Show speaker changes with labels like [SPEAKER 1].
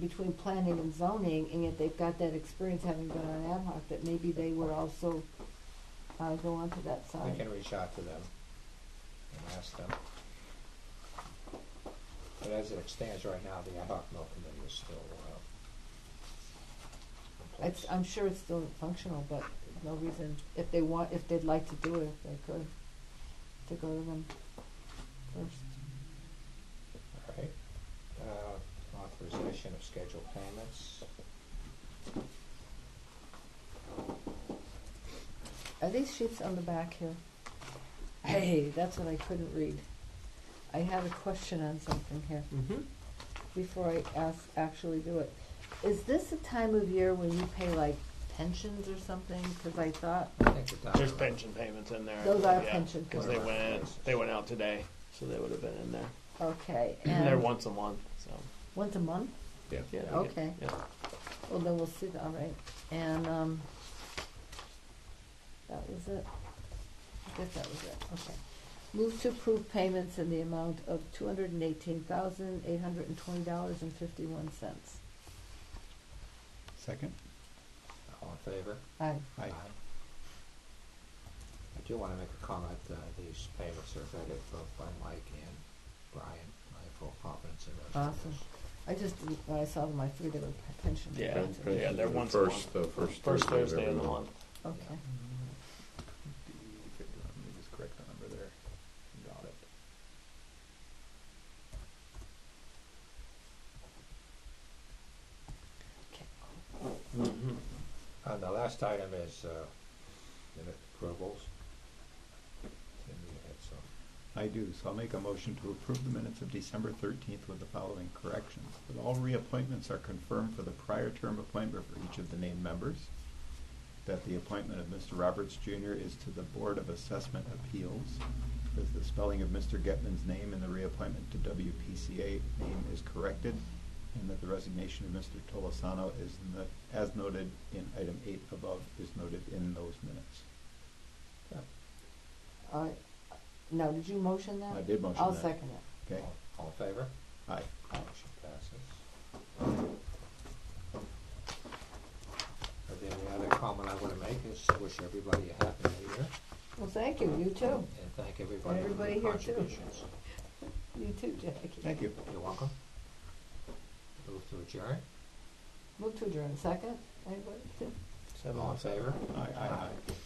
[SPEAKER 1] between planning and zoning, and yet they've got that experience having been on ad hoc, that maybe they would also, uh, go onto that
[SPEAKER 2] We
[SPEAKER 1] side.
[SPEAKER 2] can reach out to them and ask them. But as it stands right now, the ad hoc mill committee is still, uh, in
[SPEAKER 1] It's,
[SPEAKER 2] place.
[SPEAKER 1] I'm sure it's still functional, but no reason, if they want, if they'd like to do it, if they could, to go to them first.
[SPEAKER 2] All right. Uh, authorization of scheduled payments.
[SPEAKER 1] Are these sheets on the back here? Hey, that's what I couldn't read. I had a question on something here
[SPEAKER 2] Mm-hmm.
[SPEAKER 1] before I ask, actually do it. Is this a time of year when you pay like pensions or something? Cause I thought,
[SPEAKER 2] I think the dollar.
[SPEAKER 3] There's pension payments in there.
[SPEAKER 1] Those are pension
[SPEAKER 3] Because they went, in-
[SPEAKER 2] payments.
[SPEAKER 3] they went out today, so they would have been in there.
[SPEAKER 1] okay,
[SPEAKER 3] They're
[SPEAKER 1] and
[SPEAKER 3] once a month, so.
[SPEAKER 1] once a month?
[SPEAKER 2] Yeah.
[SPEAKER 3] yeah, they get-
[SPEAKER 1] Okay.
[SPEAKER 3] yeah.
[SPEAKER 1] Well, then we'll see, that, all right. And, um, that was it. I guess that was it, okay. Move to approve payments in the amount of two hundred and eighteen thousand, eight hundred and twenty dollars and fifty-one cents.
[SPEAKER 4] Second?
[SPEAKER 2] All in favor?
[SPEAKER 1] Aye.
[SPEAKER 4] Aye.
[SPEAKER 2] I do wanna make a comment, uh, these payments are vetted both by Mike and Brian. I have full confidence in those.
[SPEAKER 1] Awesome. I just, didn't- when I saw them, I figured they were pension.
[SPEAKER 3] Yeah,
[SPEAKER 1] funds.
[SPEAKER 3] yeah, they're
[SPEAKER 5] The
[SPEAKER 3] once a
[SPEAKER 5] First,
[SPEAKER 3] month.
[SPEAKER 5] the first.
[SPEAKER 3] First
[SPEAKER 5] of
[SPEAKER 3] Thursday
[SPEAKER 5] every
[SPEAKER 3] of the month.
[SPEAKER 1] Okay,
[SPEAKER 4] Let me just correct the number there. Got it.
[SPEAKER 1] okay.
[SPEAKER 2] And Uh, the last item is, uh, minute approvals. Tim, you had some.
[SPEAKER 4] I do, so I'll make a motion to approve the minutes of December thirteenth with the following corrections. That all reappointments are confirmed for the prior term appointment for each of the named members. That the appointment of Mr. Roberts Jr. is to the Board of Assessment Appeals. That the spelling of Mr. Getman's name in the reappointment to WPCA name is corrected. And that the resignation of Mr. Tolosano is, no- as noted in item eight above, is noted in those minutes.
[SPEAKER 1] All right. Now, did you motion that?
[SPEAKER 4] I did motion
[SPEAKER 1] I'll
[SPEAKER 4] that.
[SPEAKER 1] second it.
[SPEAKER 4] Okay?
[SPEAKER 2] All- All in favor?
[SPEAKER 4] Aye.
[SPEAKER 2] Motion passes. And then the other comment I wanna make is wish everybody a happy new year
[SPEAKER 1] Well, thank you, you too.
[SPEAKER 2] and thank everybody for
[SPEAKER 1] Everybody
[SPEAKER 2] their
[SPEAKER 1] here too.
[SPEAKER 2] contributions.
[SPEAKER 1] You too, Jackie.
[SPEAKER 4] Thank you.
[SPEAKER 2] You're welcome. Move to adjourn.
[SPEAKER 1] Move to adjourn, second, anybody?
[SPEAKER 3] Seven
[SPEAKER 2] All in
[SPEAKER 3] months.
[SPEAKER 2] favor?
[SPEAKER 4] Aye, aye, aye.